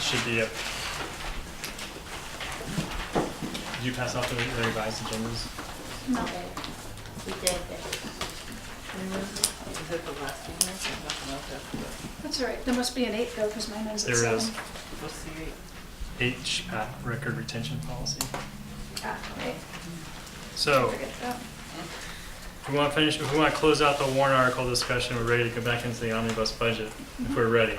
should be it. Did you pass out the the revised agendas? No. We did it. Is it the last two minutes or nothing else after that? That's all right. There must be an eight though, because mine ends at There seven. is What's the eight? HPAT, record retention policy. Ah, right. So, Forget that. if we want to finish, if we want to close out the warrant article discussion, we're ready to go back into the omnibus budget, if we're ready.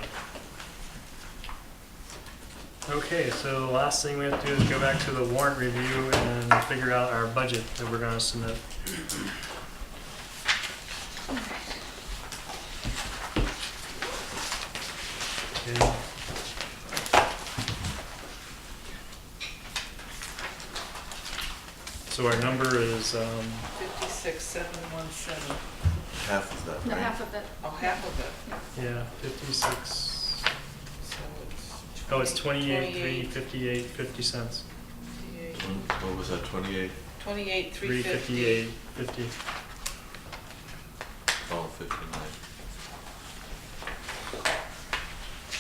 Okay, so the last thing we have to do is go back to the warrant review and figure out our budget that we're going to submit. Okay. So our number is, um, Fifty-six, seven, one, seven. half of that, No, right? half of it. Oh, half of it, Yeah, fifty-six, so it's. oh, it's twenty-eight, three, fifty-eight, fifty cents. What what was that, twenty-eight, Twenty-eight, Three three fifty-eight, fifty. fifty. oh, fifty-nine?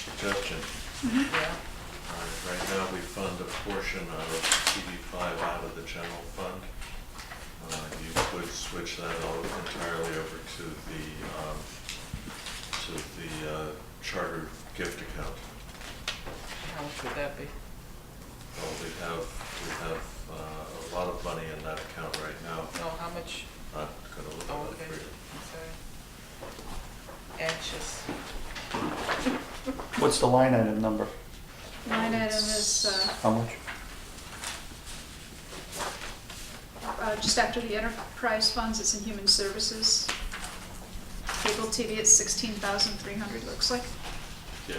Suggestion, Yeah, all right, right now we fund a portion out of CD five out of the general fund. Uh, you could switch that all entirely over to the, um, to the, uh, charter gift account. how much would that be? Well, we have, we have, uh, a lot of money in that account right now, No, how much? not gonna look Oh, at that okay, for you. sorry. Anxious. What's the line item number? Line item is, uh, How much? uh, just after the enterprise funds, it's in human services. Cable TV at sixteen thousand three hundred, looks like. Yeah.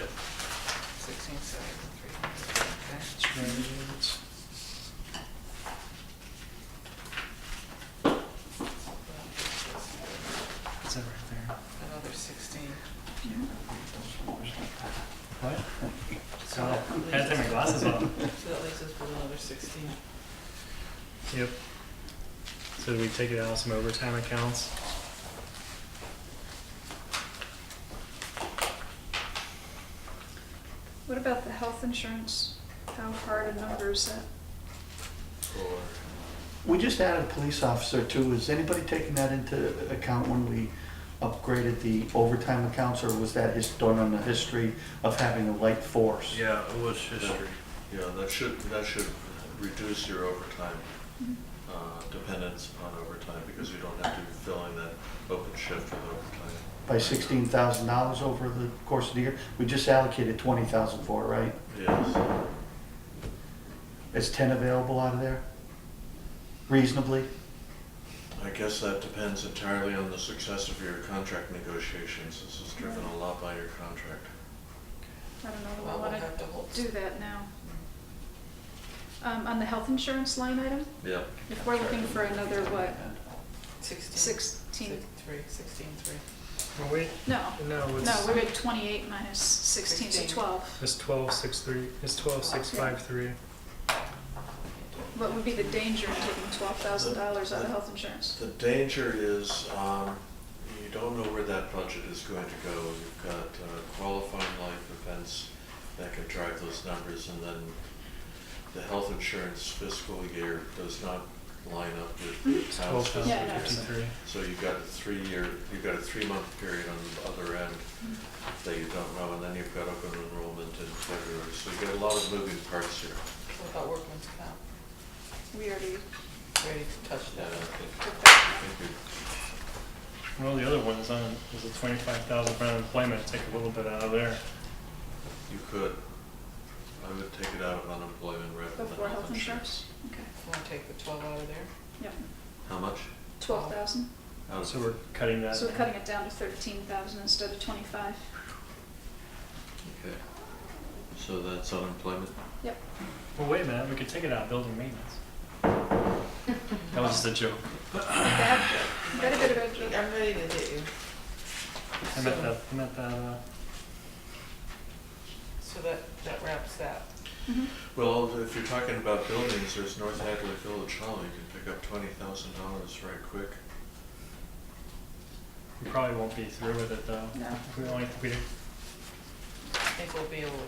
Sixteen, seven, three hundred, okay. Is that right Another sixteen. there? What? So, I had to take my glasses off. So that leaves us with another sixteen. Yep. So we take it out of some overtime accounts? What about the health insurance? How hard a number is that? Or, We just added a police officer too. Is anybody taking that into account when we upgraded the overtime accounts? Or was that just done on the history of having a light force? Yeah, it was history. yeah, that should, that should reduce your overtime, uh, dependence upon overtime, because you don't have to be filling that open shift with overtime. By sixteen thousand dollars over the course of the year? We just allocated twenty thousand for it, right? Yes, Is ten available out of there? Reasonably? I guess that depends entirely on the success of your contract negotiations, this is driven a lot by your contract. I don't know, Well, do I we'll wanna have to hold. do that now? Um, on the health insurance line item, Yeah. if we're looking for another, what, Sixteen. sixteen? Six- Three, sixteen, three. Oh, wait, No, no, no, we're at twenty-eight minus sixteen, so Sixteen. twelve. It's twelve, six, three, it's twelve, six, five, three. What would be the danger in taking twelve thousand dollars out of health insurance? The danger is, um, you don't know where that budget is going to go. You've got uh, qualifying life events that can drive those numbers, and then the health insurance fiscal year does not line up with the town's Twelve fiscal thousand Yeah, no, year. it's- fifty-three. So you've got a three-year, you've got a three-month period on the other end that you don't know, and then you've got open enrollment in February. So you've got a lot of moving parts here. What about workman's comp? We already Ready to touch Yeah, I that? think, took that. I think you- Well, the other one is on, is a twenty-five thousand for unemployment, take a little bit out of there. you could, I would take it out of unemployment rather than Before health health insurance. insurance? Okay, Want to take the twelve out of there? yep, How much? twelve thousand. Out of- So we're cutting that. So we're cutting it down to thirteen thousand instead of twenty-five. Okay. So that's unemployment? Well, wait a minute, we could take it out of building maintenance. That was just a joke. Bad joke, very, very bad joke. I'm ready to hit you. I meant that, I meant that, uh, So that, that wraps that. Mhm. Well, if you're talking about buildings, there's North Hadley Village Hall, you can pick up twenty thousand dollars right quick. we probably won't be through with it though. No. If we only, if we I think we'll be able to